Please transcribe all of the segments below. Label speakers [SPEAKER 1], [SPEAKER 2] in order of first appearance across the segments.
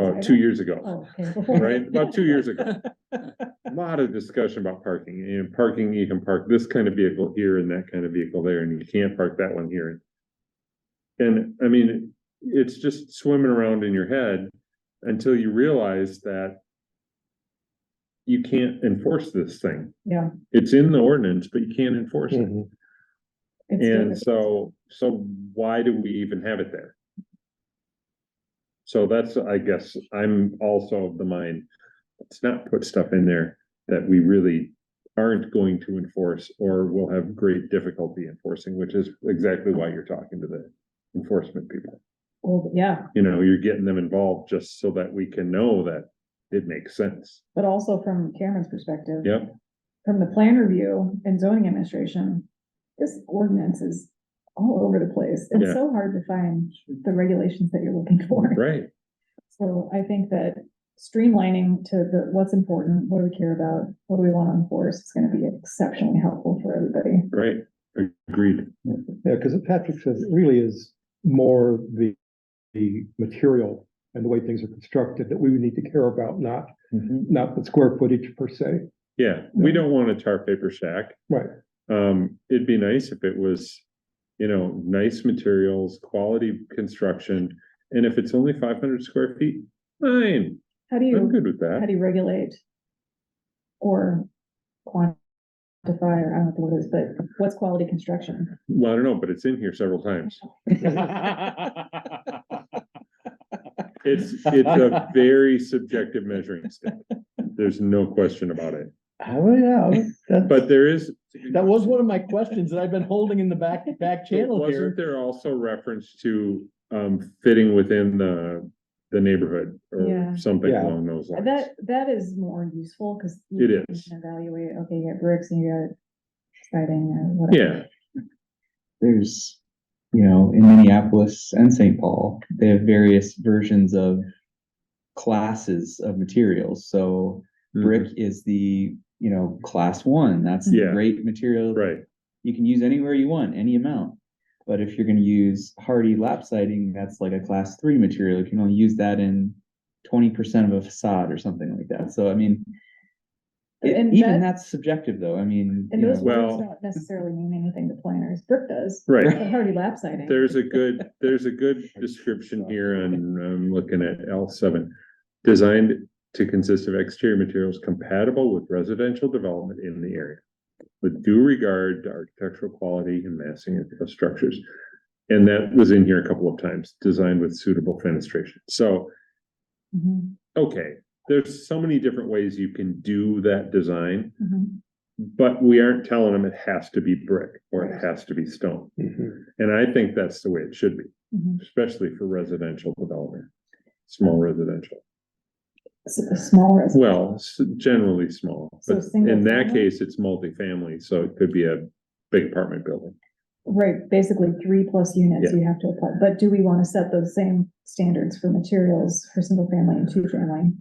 [SPEAKER 1] uh, two years ago,
[SPEAKER 2] Oh, okay.
[SPEAKER 1] right? About two years ago. A Lot of discussion about parking and parking, you can park this kind of vehicle here and that kind of vehicle there, and you can't park that one here. And I mean, it's just swimming around in your head until you realize that you can't enforce this thing.
[SPEAKER 2] Yeah.
[SPEAKER 1] It's in the ordinance, but you can't enforce it.
[SPEAKER 2] It's
[SPEAKER 1] And
[SPEAKER 2] good.
[SPEAKER 1] so, so why do we even have it there? So that's, I guess, I'm also of the mind, let's not put stuff in there that we really aren't going to enforce or will have great difficulty enforcing, which is exactly why you're talking to the enforcement people.
[SPEAKER 2] Well, yeah,
[SPEAKER 1] You know, you're getting them involved just so that we can know that it makes sense.
[SPEAKER 2] but also from Cameron's perspective.
[SPEAKER 1] Yep.
[SPEAKER 2] From the plan review and zoning administration, this ordinance is all over the place. It's
[SPEAKER 1] Yeah.
[SPEAKER 2] so hard to find the regulations that you're looking for.
[SPEAKER 1] Right,
[SPEAKER 2] So I think that streamlining to the, what's important, what do we care about, what do we want to enforce, is gonna be exceptionally helpful for everybody.
[SPEAKER 1] right, agreed.
[SPEAKER 3] Yeah, because Patrick says it really is more the, the material and the way things are constructed that we would need to care about, not, not the square footage per se.
[SPEAKER 1] Yeah, we don't want a tar paper shack.
[SPEAKER 3] Right.
[SPEAKER 1] Um, it'd be nice if it was, you know, nice materials, quality construction. And if it's only five hundred square feet, fine,
[SPEAKER 2] How do
[SPEAKER 1] I'm
[SPEAKER 2] you,
[SPEAKER 1] good with
[SPEAKER 2] how
[SPEAKER 1] that.
[SPEAKER 2] do you regulate? Or quantify, or I don't know what it is, but what's quality construction?
[SPEAKER 1] Well, I don't know, but it's in here several times. It's, it's a very subjective measuring stick. There's no question about it,
[SPEAKER 4] Oh, yeah, that,
[SPEAKER 1] but there is.
[SPEAKER 4] that was one of my questions that I've been holding in the back, back channel
[SPEAKER 1] Wasn't
[SPEAKER 4] here.
[SPEAKER 1] there also reference to, um, fitting within the, the neighborhood
[SPEAKER 2] Yeah.
[SPEAKER 1] or something
[SPEAKER 3] Yeah.
[SPEAKER 1] along those lines?
[SPEAKER 2] That, that is more useful, cause.
[SPEAKER 1] It
[SPEAKER 2] you
[SPEAKER 1] is.
[SPEAKER 2] can Evaluate, okay, you got bricks and you got siding or whatever.
[SPEAKER 1] Yeah,
[SPEAKER 5] there's, you know, in Minneapolis and St. Paul, they have various versions of classes of materials. So
[SPEAKER 1] Mm-hmm.
[SPEAKER 5] brick is the, you know, class one. That's the
[SPEAKER 1] Yeah.
[SPEAKER 5] great material.
[SPEAKER 1] Right,
[SPEAKER 5] You can use anywhere you want, any amount. But if you're going to use hardy lap siding, that's like a class three material. You can only use that in 20% of a facade or something like that. So, I mean, it-
[SPEAKER 2] And that-
[SPEAKER 5] even that's subjective though. I mean,
[SPEAKER 2] And
[SPEAKER 5] you
[SPEAKER 2] those
[SPEAKER 5] know,
[SPEAKER 1] well-
[SPEAKER 2] words don't necessarily mean anything to planners, brick does,
[SPEAKER 1] right.
[SPEAKER 2] but hardy lap siding.
[SPEAKER 1] There's a good, there's a good description here and I'm looking at L seven. Designed to consist of exterior materials compatible with residential development in the area. With due regard to architectural quality and massing of- of structures. And that was in here a couple of times, designed with suitable fenestration. So,
[SPEAKER 2] Mhm,
[SPEAKER 1] okay, there's so many different ways you can do that design.
[SPEAKER 2] mhm.
[SPEAKER 1] But we aren't telling them it has to be brick or it has to be stone.
[SPEAKER 3] Mm-hmm.
[SPEAKER 1] And I think that's the way it should be,
[SPEAKER 2] Mhm.
[SPEAKER 1] especially for residential development. Small residential,
[SPEAKER 2] S- a Small res.
[SPEAKER 1] well, s- generally small,
[SPEAKER 2] So
[SPEAKER 1] but
[SPEAKER 2] single
[SPEAKER 1] in that
[SPEAKER 2] family?
[SPEAKER 1] case, it's multifamily, so it could be a big apartment building.
[SPEAKER 2] Right, basically three plus units
[SPEAKER 1] Yeah.
[SPEAKER 2] you have to apply, but do we want to set those same standards for materials for single family and two family?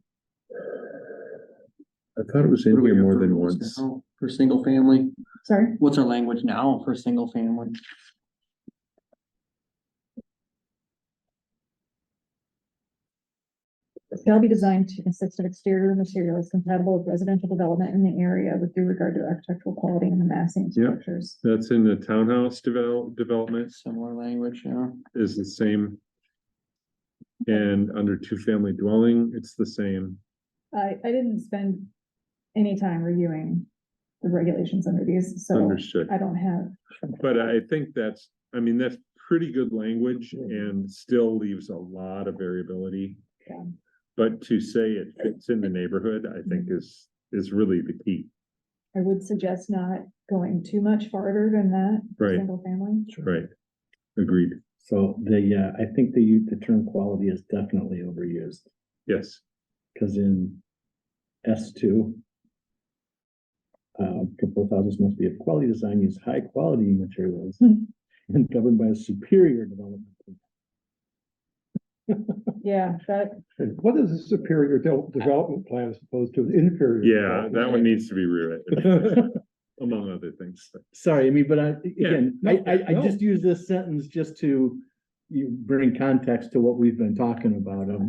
[SPEAKER 1] I thought it was in here more than once.
[SPEAKER 6] For single family,
[SPEAKER 2] Sorry,
[SPEAKER 6] what's our language now for single family?
[SPEAKER 2] shall be designed to consist of exterior materials compatible with residential development in the area with due regard to architectural quality and the massing of
[SPEAKER 1] Yeah.
[SPEAKER 2] structures.
[SPEAKER 1] That's in the townhouse develop, development
[SPEAKER 6] Similar language, yeah.
[SPEAKER 1] is the same. And under two-family dwelling, it's the same.
[SPEAKER 2] I, I didn't spend any time reviewing the regulations under these, so
[SPEAKER 1] Understood.
[SPEAKER 2] I don't have,
[SPEAKER 1] But I think that's, I mean, that's pretty good language and still leaves a lot of variability.
[SPEAKER 2] Yeah.
[SPEAKER 1] But to say it fits in the neighborhood, I think
[SPEAKER 4] Mm-hmm.
[SPEAKER 1] is, is really the key,
[SPEAKER 2] I would suggest not going too much farther than that. for
[SPEAKER 1] Right.
[SPEAKER 2] Single family.
[SPEAKER 1] right? Agreed,
[SPEAKER 4] So the, uh, I think the, u- the term quality is definitely overused,
[SPEAKER 1] yes,
[SPEAKER 4] because in S two. Uh, proposed houses must be of quality design, use high quality materials,
[SPEAKER 2] Hmm.
[SPEAKER 4] and governed by a superior development.
[SPEAKER 2] Yeah, that,
[SPEAKER 3] And what is a superior de- development plan as opposed to an inferior?
[SPEAKER 1] yeah, that one needs to be rewritten, among other things.
[SPEAKER 4] Sorry, I mean, but I, again, I, I, I
[SPEAKER 3] no.
[SPEAKER 4] just use this sentence just to. You bring context to what we've been talking about of